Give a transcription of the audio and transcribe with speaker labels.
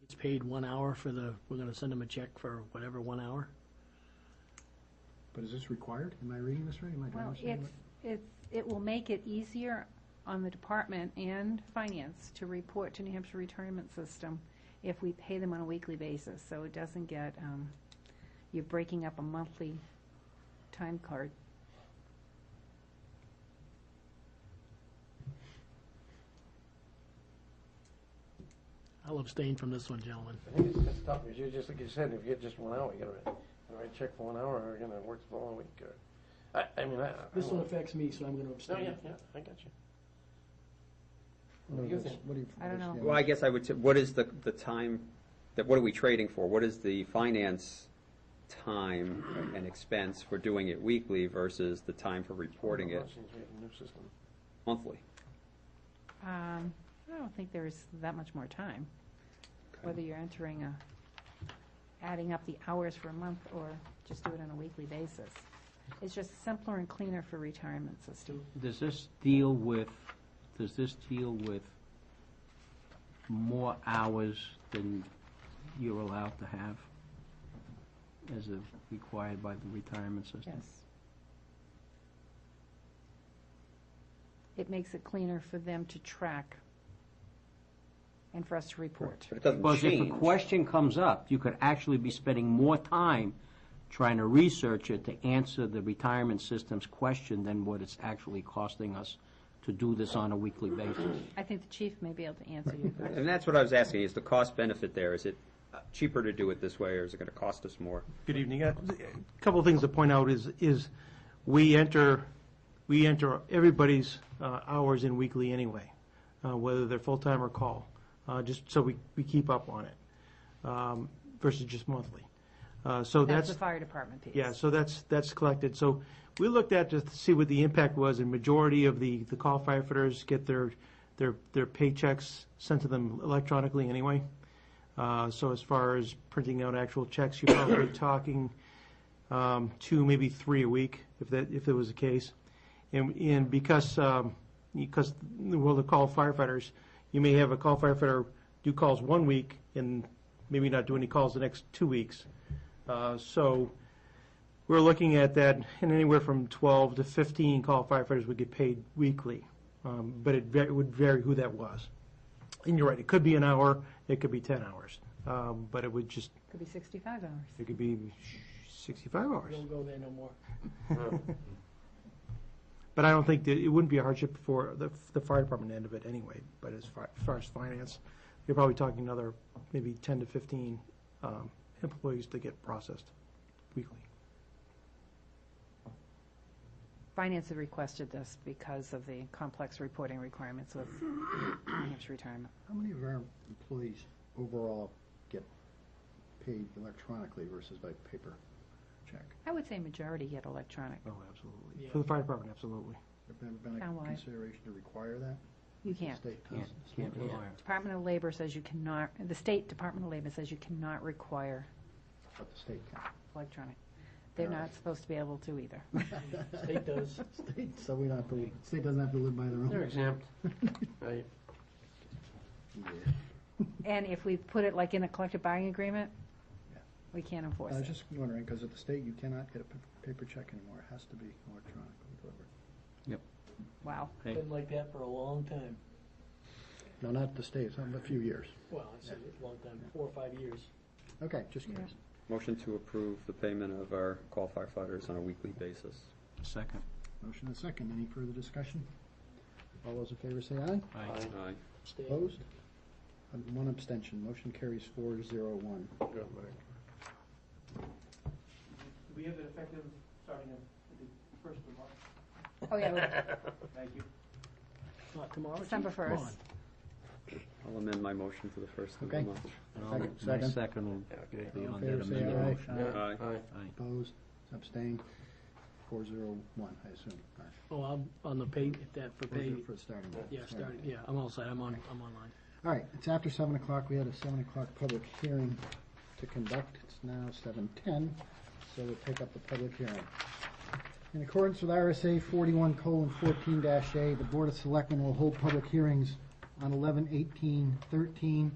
Speaker 1: gets paid one hour for the, we're gonna send them a check for whatever, one hour?
Speaker 2: But is this required? Am I reading this right? Am I gonna
Speaker 3: Well,
Speaker 2: understand
Speaker 3: it's, it's, it will make it easier on the department and finance to report to New Hampshire Retirement System if we pay them on a weekly basis, so it doesn't get, um, you're breaking up a monthly time card.
Speaker 1: I'll abstain from this one, gentlemen.
Speaker 4: I think it's just tough, because you just, like you said, if you get just one hour, you gotta write, you write a check for one hour, or you're gonna work the whole week, or, I, I mean, I. I
Speaker 1: This
Speaker 4: don't
Speaker 1: one
Speaker 4: know.
Speaker 1: affects me, so I'm gonna
Speaker 4: No,
Speaker 1: abstain.
Speaker 4: Oh, yeah, yeah, I got you.
Speaker 2: what- what
Speaker 4: you
Speaker 2: is-
Speaker 4: think?
Speaker 2: what do you-
Speaker 3: I don't know.
Speaker 2: yeah.
Speaker 5: Well, I guess I would, say, what is the, the time, that, what are we trading for? What is the finance time and expense for doing it weekly versus the time for reporting it
Speaker 4: Since we have a new system.
Speaker 5: monthly?
Speaker 3: Um, I don't think there's that much more time, whether you're entering a, adding up the hours for a month or just do it on a weekly basis. It's just simpler and cleaner for retirement system.
Speaker 6: Does this deal with, does this deal with more hours than you're allowed to have as is required by the retirement system?
Speaker 3: Yes. It makes it cleaner for them to track and for us to report.
Speaker 5: But it doesn't
Speaker 6: Because if a
Speaker 5: change.
Speaker 6: question comes up, you could actually be spending more time trying to research it to answer the retirement system's question than what it's actually costing us to do this on a weekly basis.
Speaker 3: I think the chief may be able to answer your question.
Speaker 5: And that's what I was asking, is the cost benefit there? Is it cheaper to do it this way, or is it gonna cost us more?
Speaker 7: Good evening. Uh, A couple of things to point out is, is we enter, we enter everybody's uh, hours in weekly anyway, uh, whether they're full-time or call, uh, just so we, we keep up on it, um, versus just monthly. Uh, So
Speaker 3: That's
Speaker 7: that's.
Speaker 3: the fire department piece.
Speaker 7: Yeah, so that's, that's collected. So we looked at to see what the impact was, and majority of the, the call firefighters get their, their, their paychecks sent to them electronically anyway. Uh, so as far as printing out actual checks, you're probably talking, um, two, maybe three a week, if that, if it was the case. And, and because, um, because the world of call firefighters, you may have a call firefighter do calls one week and maybe not do any calls the next two weeks. Uh, so, we're looking at that, and anywhere from 12 to 15 call firefighters would get paid weekly, Um, but it va- it would vary who that was. And you're right, it could be an hour, it could be 10 hours, Um, but it would just,
Speaker 3: Could be sixty-five hours.
Speaker 7: it could be 65 hours.
Speaker 1: Don't go there no more.
Speaker 7: But I don't think, that it wouldn't be a hardship for the the fire department end of it anyway, but as far as far as finance, you're probably talking another maybe 10 to 15 um, employees to get processed weekly.
Speaker 3: Finance had requested this because of the complex reporting requirements with New Hampshire retirement.
Speaker 2: How many of our employees overall get paid electronically versus by paper check?
Speaker 3: I would say majority get electronic.
Speaker 7: Oh, absolutely.
Speaker 1: Yeah.
Speaker 7: For the fire department, absolutely.
Speaker 2: Have there been a
Speaker 3: Townwide.
Speaker 2: consideration to require that?
Speaker 3: You can't.
Speaker 2: State
Speaker 6: Can't-
Speaker 2: does.
Speaker 6: can't rely on.
Speaker 3: Department of Labor says you cannot, the State Department of Labor says you cannot require
Speaker 2: But the state can.
Speaker 3: electronic. They're
Speaker 2: Yeah.
Speaker 3: not supposed to be able to either.
Speaker 1: State does.
Speaker 2: State, so we don't have to, state doesn't have to live by their
Speaker 4: They're
Speaker 2: own.
Speaker 4: exempt. Right.
Speaker 2: Yeah.
Speaker 3: And if we put it like in a collective bargaining agreement,
Speaker 2: Yeah.
Speaker 3: we can't enforce
Speaker 2: I was
Speaker 3: it.
Speaker 2: just wondering, because at the state, you cannot get a pa- paper check anymore. It has to be electronically delivered.
Speaker 3: Wow.
Speaker 6: Okay.
Speaker 1: Been like that for a long time.
Speaker 2: No, not the state, some, a few years.
Speaker 1: Well, I said it a long time, four or five years.
Speaker 2: Okay, just curious.
Speaker 5: Motion to approve the payment of our call firefighters on a weekly basis.
Speaker 6: Second.
Speaker 2: Motion and second. Any further discussion? All those in favor say aye.
Speaker 6: Aye.
Speaker 5: Aye.
Speaker 1: Stay.
Speaker 2: Opposed? And One abstention. Motion carries four zero one.
Speaker 4: Good, Mike.
Speaker 7: Do we have it effective starting at the first of March?
Speaker 3: Oh, yeah,
Speaker 7: Thank you.
Speaker 1: Not tomorrow. Chief?
Speaker 3: December
Speaker 1: Come on.
Speaker 3: 1st.
Speaker 5: I'll amend my motion for the first of the
Speaker 2: Okay.
Speaker 5: month.
Speaker 6: And I'll-
Speaker 2: Second,
Speaker 6: My
Speaker 2: second.
Speaker 6: second will
Speaker 4: Okay.
Speaker 6: be
Speaker 2: All
Speaker 6: on
Speaker 2: in favor
Speaker 6: that
Speaker 2: say
Speaker 6: amended
Speaker 2: aye.
Speaker 6: motion.
Speaker 2: Aye.
Speaker 5: Aye.
Speaker 4: Aye.
Speaker 6: Aye.
Speaker 2: Opposed? Abstained? Four zero one, I assume. All right.
Speaker 1: Oh, I'm on the pay, that for
Speaker 2: We're
Speaker 1: pay,
Speaker 2: good For the starting. date.
Speaker 1: yeah,
Speaker 2: Sorry.
Speaker 1: starting, yeah, I'm all set, I'm on, I'm online.
Speaker 2: All right, it's after seven o'clock. We had a seven o'clock public hearing to conduct. It's now seven ten, so we'll take up the public hearing. In accordance with RSA forty-one colon fourteen dash A, the Board of Selectmen will hold public hearings on eleven eighteen thirteen